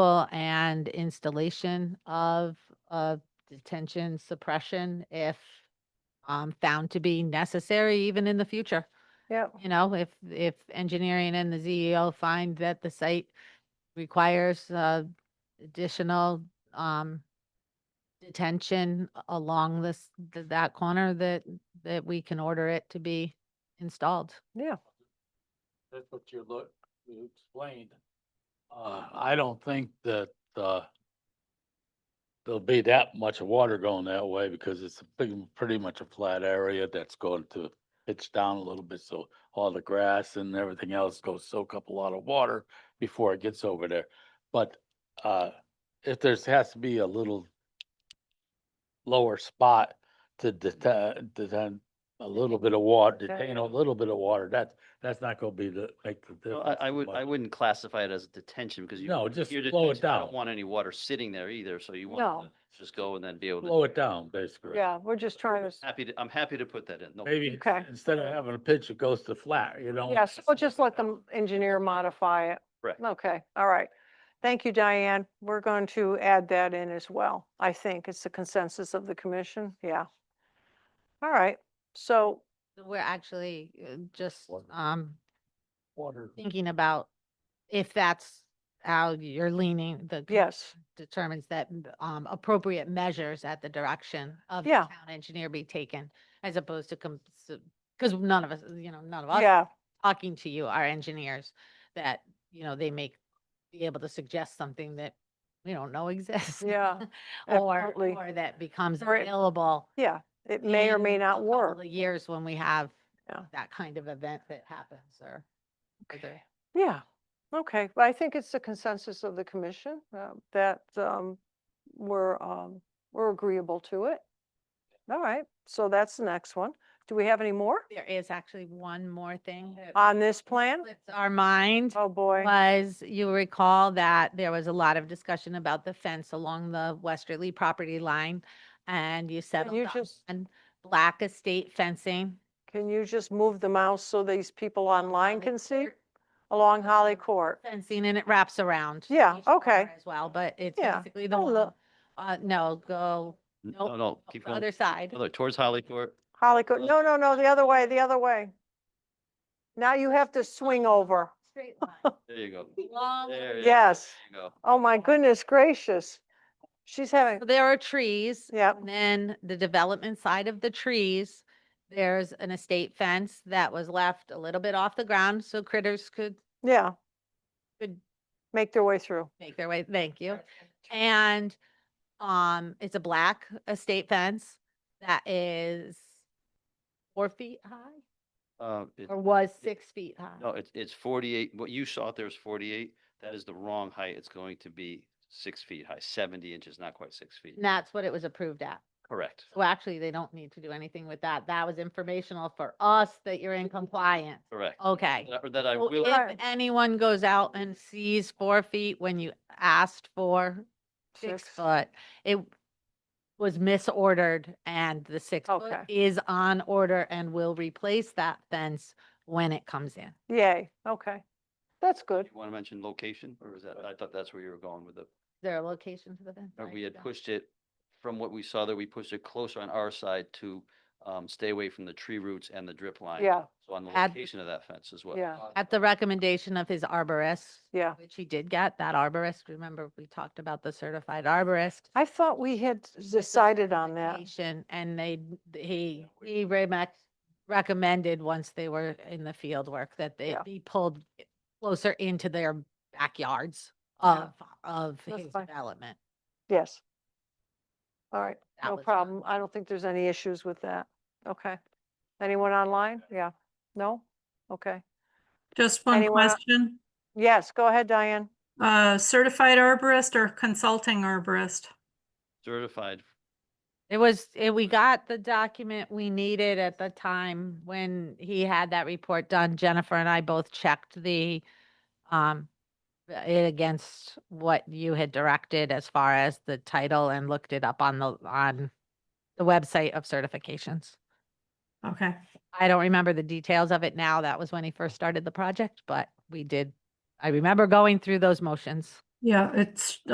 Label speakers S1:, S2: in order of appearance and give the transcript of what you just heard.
S1: removal and installation of, of detention suppression if um, found to be necessary even in the future.
S2: Yeah.
S1: You know, if, if engineering and the CEO find that the site requires, uh, additional, um, detention a- along this, th- that corner that, that we can order it to be installed.
S2: Yeah.
S3: That's what you look, you explained. Uh, I don't think that, uh, there'll be that much water going that way because it's a big, pretty much a flat area that's going to pitch down a little bit. So all the grass and everything else goes soak up a lot of water before it gets over there. But, uh, if there's, has to be a little lower spot to detain, detain a little bit of water,
S2: Detain.
S3: detain a little bit of water, that's that's not gonna be the, like, the
S4: No,
S3: difference.
S4: I, I would, I
S3: much.
S4: wouldn't classify it as detention because you.
S3: No, just
S4: you're
S3: slow it
S4: detention, I don't
S3: down.
S4: Want any water sitting there either, so you
S2: No.
S4: want it to just go and then be able to.
S3: Slow it down, basically.
S2: Yeah, we're just trying to, s-
S4: Happy to, I'm happy to put that in. No,
S3: Maybe
S2: Okay.
S3: instead of having a pitch, it goes to flat, you know?
S2: yeah, so we'll just let the engineer modify it.
S4: Correct.
S2: Okay, all right. Thank you, Diane. We're going to add that in as well. I think it's the consensus of the commission. Yeah. All right, so,
S1: We're actually uh, just,
S3: Water.
S1: um,
S3: Water.
S1: thinking about if that's how you're leaning, the. commission
S2: yes,
S1: Determines that um, appropriate measures at the direction of the
S2: Yeah.
S1: town engineer be taken as opposed to, because none of us, you know, none of us
S2: yeah,
S1: talking to you are engineers that, you know, they may be able to suggest something that we don't know exists.
S2: Yeah,
S1: Or,
S2: absolutely.
S1: or that becomes
S2: Or it-
S1: available.
S2: yeah. It may or may
S1: in a
S2: not
S1: couple
S2: work.
S1: of Years when we have
S2: Yeah.
S1: that kind of event that happens or. or the-
S2: Okay. Yeah, okay. But I think it's the consensus of the commission uh, that um, we're, um, we're agreeable to it. All right, so that's the next one. Do we have any more
S1: There is actually one more thing that
S2: on this plan?
S1: slipped our mind
S2: Oh, boy.
S1: was, you recall that there was a lot of discussion about the fence along the westerly property line. And you
S2: Can
S1: settled
S2: you just,
S1: on black estate fencing.
S2: can you just move the mouse so these people online
S1: Holly
S2: can see?
S1: Court
S2: Along Holly
S1: um,
S2: Court.
S1: Fencing and it wraps around.
S2: Yeah,
S1: each corner
S2: okay.
S1: As well, but it's
S2: Yeah,
S1: basically the
S2: I'll
S1: one,
S2: look.
S1: uh, no, go
S4: no,
S1: nope,
S4: no, keep
S1: the
S4: going.
S1: other side.
S4: Other, towards Holly Court.
S2: Holly Court, no, no, no, the other way, the other way. Now you have to swing over.
S1: Straight line.
S4: There you go.
S1: Long
S4: There
S1: way.
S4: you go,
S2: Yes.
S4: there you go.
S2: Oh, my goodness gracious. She's having,
S1: So There are trees.
S2: Yep.
S1: And then the development side of the trees, there's an estate fence that was left a little bit off the ground so critters could
S2: yeah.
S1: Good.
S2: Make their way through.
S1: make their way, thank you. And, um, it's a black estate fence that is four feet high
S4: Uh, it-
S1: or was six feet high.
S4: No, it's, it's forty-eight, what you saw out there is forty-eight, that is the wrong height, it's going to be six feet high, seventy inches, not quite six feet.
S1: And that's what it was approved at.
S4: Correct.
S1: So actually, they don't need to do anything with that. That was informational for us that you're in compliance.
S4: Correct.
S1: Okay.
S4: That- That I
S1: So
S4: will.
S1: If anyone goes out and sees four feet when you asked for six foot, it was misordered and the six foot
S2: Okay.
S1: is on order and will replace that fence when it comes in.
S2: Yay, okay. That's good.
S4: You want to mention location, or is that, I thought that's where you were going with it.
S1: Is there a location for the fence?
S4: Or
S1: I
S4: we had
S1: don't-
S4: pushed it, from what we saw there, we pushed it closer on our side to um, stay away from the tree roots and the drip line.
S2: Yeah,
S4: So on the
S1: Add-
S4: location of that fence as well.
S2: Yeah.
S1: At the recommendation of his arborist,
S2: yeah.
S1: which he did get, that arborist, remember we talked about the certified arborist.
S2: I thought we had decided on that.
S1: certification, And they, he, he remec- recommended, once they were in the field work, that they
S2: Yeah.
S1: be pulled closer into their backyards
S2: Yeah.
S1: of, of
S2: That's
S1: his
S2: fine.
S1: development.
S2: Yes. All right,
S1: That
S2: no
S1: was done.
S2: problem. I don't think there's any issues with that. Okay. Anyone online? Yeah. No? Okay.
S5: Just one
S2: Anyone el-
S5: question.
S2: Yes, go ahead, Diane.
S5: Uh, certified arborist or consulting arborist?
S4: Certified,
S1: It was, it- we got the document we needed at the time when he had that report done. Jennifer and I both checked the, um, it against what you had directed as far as the title and looked it up on the, on the website of certifications.
S5: Okay,
S1: I don't remember the details of it now. That was when he first started the project, but we did. I remember going through those motions.
S5: Yeah, it's